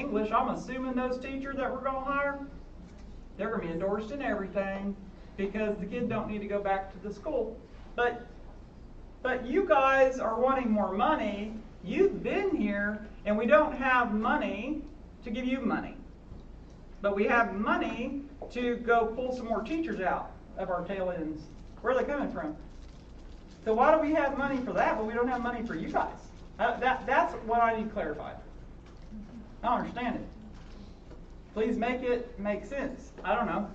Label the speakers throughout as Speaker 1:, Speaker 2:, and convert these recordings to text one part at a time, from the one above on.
Speaker 1: English, I'm assuming those teachers that we're gonna hire, they're gonna be endorsed in everything because the kid don't need to go back to the school. But, but you guys are wanting more money. You've been here and we don't have money to give you money. But we have money to go pull some more teachers out of our tail ends. Where are they coming from? So why do we have money for that, but we don't have money for you guys? Uh, That, that's what I need clarified. I don't understand it. Please make it make sense. I don't know.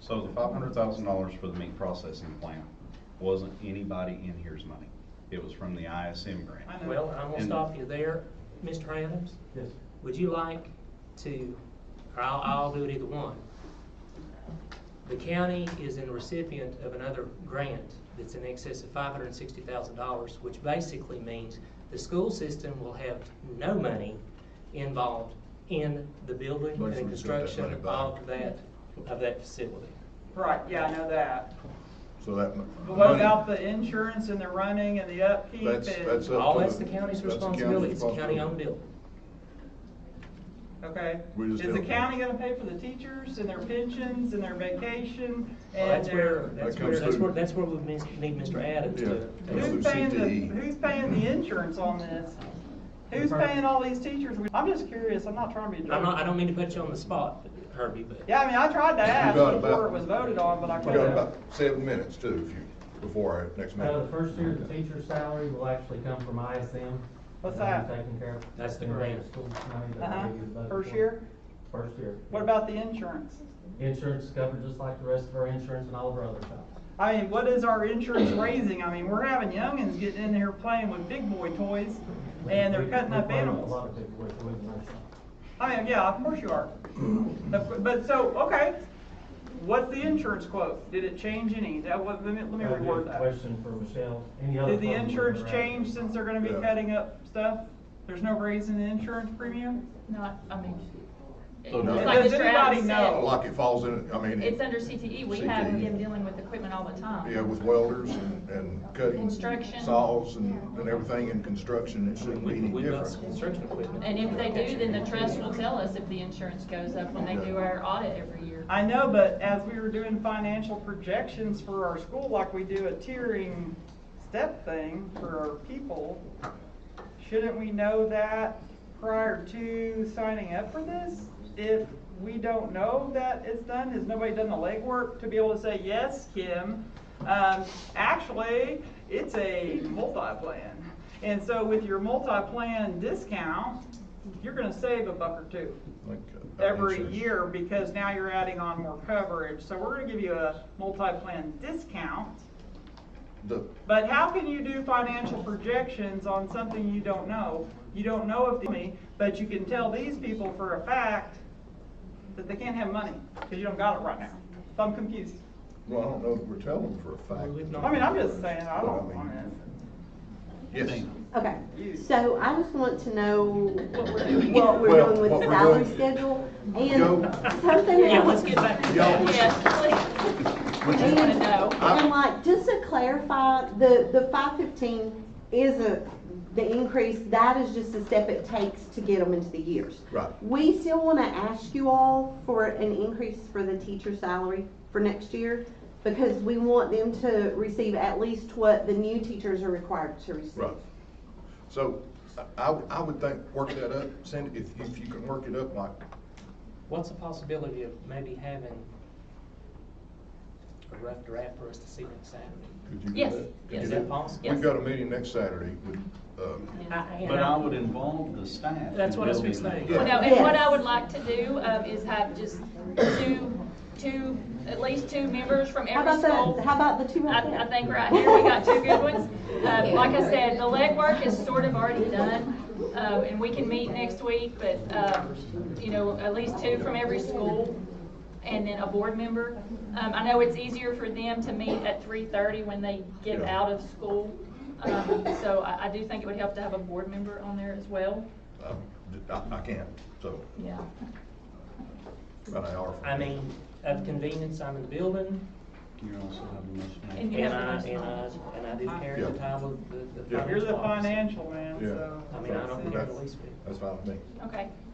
Speaker 2: So the five hundred thousand dollars for the meat processing plant wasn't anybody in here's money. It was from the ISM grant.
Speaker 1: I know.
Speaker 3: Well, I'm gonna
Speaker 2: And-
Speaker 3: stop you there, Mr. Adams.
Speaker 4: Yes.
Speaker 3: Would you like to, or I'll, I'll do it either one. The county is in recipient of another grant that's in excess of five hundred and sixty thousand dollars, which basically means the school system will have no money involved in the building and
Speaker 4: Unless
Speaker 3: the
Speaker 4: we give that money
Speaker 3: construction
Speaker 4: back.
Speaker 3: of that, of that facility.
Speaker 1: Right, yeah, I know that.
Speaker 4: So that. mo-
Speaker 1: But what
Speaker 4: money-
Speaker 1: about the insurance and the running and the upkeep and?
Speaker 4: That's, that's. up
Speaker 3: All
Speaker 4: to
Speaker 3: that's the county's
Speaker 4: that's the
Speaker 3: responsibility, it's a
Speaker 4: responsibility.
Speaker 3: county-owned building.
Speaker 1: Okay.
Speaker 4: We
Speaker 1: Is
Speaker 4: just
Speaker 1: the
Speaker 4: don't-
Speaker 1: county gonna pay for the teachers and their pensions and their vacation
Speaker 3: Well,
Speaker 1: and
Speaker 3: that's
Speaker 1: their?
Speaker 3: where, uh, that's
Speaker 4: That
Speaker 3: where,
Speaker 4: comes
Speaker 3: that's
Speaker 4: through.
Speaker 3: where, that's where we mis- need Mr. Adams
Speaker 4: Yeah.
Speaker 3: to.
Speaker 4: Comes through
Speaker 1: Who's paying
Speaker 4: CTE.
Speaker 1: the, who's paying the insurance on this? Who's paying all these teachers? I'm just curious, I'm not trying to be a jerk.
Speaker 3: I'm not, I don't mean to put you on the spot, Herbie, but.
Speaker 1: Yeah, I mean, I tried to ask
Speaker 4: got about-
Speaker 1: before it was voted on, but I
Speaker 4: We
Speaker 1: couldn't.
Speaker 4: got about seven minutes too, if you, before our next meeting.
Speaker 5: Uh, the first year, the teacher's salary will actually come from ISM.
Speaker 1: What's
Speaker 5: That'll be
Speaker 1: that?
Speaker 5: Taken care of.
Speaker 3: That's the
Speaker 5: In
Speaker 3: grant.
Speaker 5: school money that
Speaker 1: Uh-huh,
Speaker 5: they use budget
Speaker 1: first
Speaker 5: for.
Speaker 1: year?
Speaker 5: First year.
Speaker 1: What about the insurance?
Speaker 5: Insurance is covered just like the rest of our insurance and all of our other jobs.
Speaker 1: I mean, what is our insurance raising? I mean, we're having youngins getting in here playing with big boy toys and they're
Speaker 5: We-
Speaker 1: cutting
Speaker 5: we
Speaker 1: up
Speaker 5: play with A lot
Speaker 1: animals.
Speaker 5: of people with, with our shop.
Speaker 1: I mean, yeah, of course you are. But but so, okay, what's the insurance quote? Did it change any? That was, let me, let me
Speaker 5: That'd be a
Speaker 1: reword that.
Speaker 5: Uh, Question for Michelle. Any other
Speaker 1: Did the
Speaker 5: problem we're
Speaker 1: insurance
Speaker 5: having?
Speaker 1: change since they're gonna be
Speaker 4: Yeah.
Speaker 1: cutting up stuff? There's no raise in the insurance premium?
Speaker 6: Not, I mean.
Speaker 4: So
Speaker 6: it's
Speaker 4: does-
Speaker 6: like
Speaker 1: Does
Speaker 6: Mr.
Speaker 1: anybody
Speaker 6: Adams
Speaker 1: know?
Speaker 4: Like Oh, it falls in, I
Speaker 6: said,
Speaker 4: mean.
Speaker 6: It's under CTE, we have
Speaker 4: CTE.
Speaker 6: them dealing with equipment all the time.
Speaker 4: Yeah, with welders and, and cutting.
Speaker 6: Construction.
Speaker 4: Saws and, and everything in construction, it shouldn't be
Speaker 3: We,
Speaker 4: any
Speaker 3: we've got
Speaker 4: different.
Speaker 3: some construction equipment.
Speaker 6: And if they do, then the trust will tell us if the insurance goes up when they do our audit every year.
Speaker 1: I know, but as we were doing financial projections for our school, like we do a tiering step thing for our people, shouldn't we know that prior to signing up for this? If we don't know that it's done, has nobody done the legwork to be able to say, yes, Kim, um, actually, it's a multi-plan. And so with your multi-plan discount, you're gonna save a buck or two
Speaker 4: Like, uh,
Speaker 1: every
Speaker 4: insurance.
Speaker 1: year because now you're adding on more coverage. So we're gonna give you a multi-plan discount.
Speaker 4: The,
Speaker 1: But how can you do financial projections on something you don't know? You don't know if, the- but you can tell these people for a fact that they can't have money because you don't got it right now. So I'm confused.
Speaker 4: well, I don't know that we're telling for a
Speaker 3: Well, we've
Speaker 4: fact.
Speaker 3: not-
Speaker 1: I mean, I'm just saying, I
Speaker 4: But
Speaker 1: don't
Speaker 4: mean,
Speaker 1: want it.
Speaker 4: Yes.
Speaker 7: Okay,
Speaker 1: You-
Speaker 7: so I just want to know what we're doing
Speaker 4: Well,
Speaker 7: with
Speaker 4: what
Speaker 7: the
Speaker 4: we're
Speaker 7: salary
Speaker 4: doing-
Speaker 7: schedule
Speaker 4: Yo.
Speaker 7: and something
Speaker 3: Yeah, let's
Speaker 7: else.
Speaker 3: get back to
Speaker 4: Y'all
Speaker 3: that.
Speaker 4: was-
Speaker 6: Yes, please. We just wanna know.
Speaker 7: And like, just to clarify, the, the five fifteen isn't the increase, that is just the step it takes to get them into the years.
Speaker 4: Right.
Speaker 7: We still want to ask you all for an increase for the teacher salary for next year because we want them to receive at least what the new teachers are required to receive.
Speaker 4: Right. So I, I would think, work that up, send, if, if you can work it up like,
Speaker 3: What's the possibility of maybe having a rough draft for us to see next Saturday?
Speaker 4: could you do that?
Speaker 6: Yes,
Speaker 4: Could you
Speaker 3: yes. Is
Speaker 4: do
Speaker 3: that possible?
Speaker 4: We've got a meeting next Saturday with, um,
Speaker 3: I-
Speaker 2: But I would involve the staff.
Speaker 3: That's
Speaker 2: in
Speaker 3: what I was
Speaker 2: building that.
Speaker 3: fixing to
Speaker 6: Well,
Speaker 3: say.
Speaker 6: no, and what
Speaker 7: Yes.
Speaker 6: I would like to do, um, is have just two, two, at least two members from
Speaker 7: How
Speaker 6: every
Speaker 7: about
Speaker 6: school.
Speaker 7: the, how about the two
Speaker 6: I,
Speaker 7: right there?
Speaker 6: I think right here, we got two good ones. Uh, like I said, the legwork is sort of already done, uh, and we can meet next week, but, um, you know, at least two from every school, and then a board member. Um, I know it's easier for them to meet at three-thirty when they get
Speaker 4: Yeah.
Speaker 6: out of school, um, so I, I do think it would help to have a board member on there as well.
Speaker 4: um, I, I can't, so
Speaker 6: Yeah.
Speaker 4: about an hour. from
Speaker 3: I
Speaker 4: now.
Speaker 3: mean, of convenience, I'm in the building,
Speaker 2: You also have a motion.
Speaker 6: And you
Speaker 3: and
Speaker 6: have
Speaker 3: I,
Speaker 6: the
Speaker 3: and I,
Speaker 6: most-
Speaker 3: and I do carry
Speaker 4: Yeah.
Speaker 3: the title of the, the
Speaker 4: Yeah.
Speaker 3: financial
Speaker 1: You're the
Speaker 3: officer.
Speaker 1: financial man,
Speaker 4: Yeah.
Speaker 1: so.
Speaker 3: I mean, I don't care
Speaker 4: That's-
Speaker 3: the least bit.
Speaker 4: That's fine with me.
Speaker 6: Okay.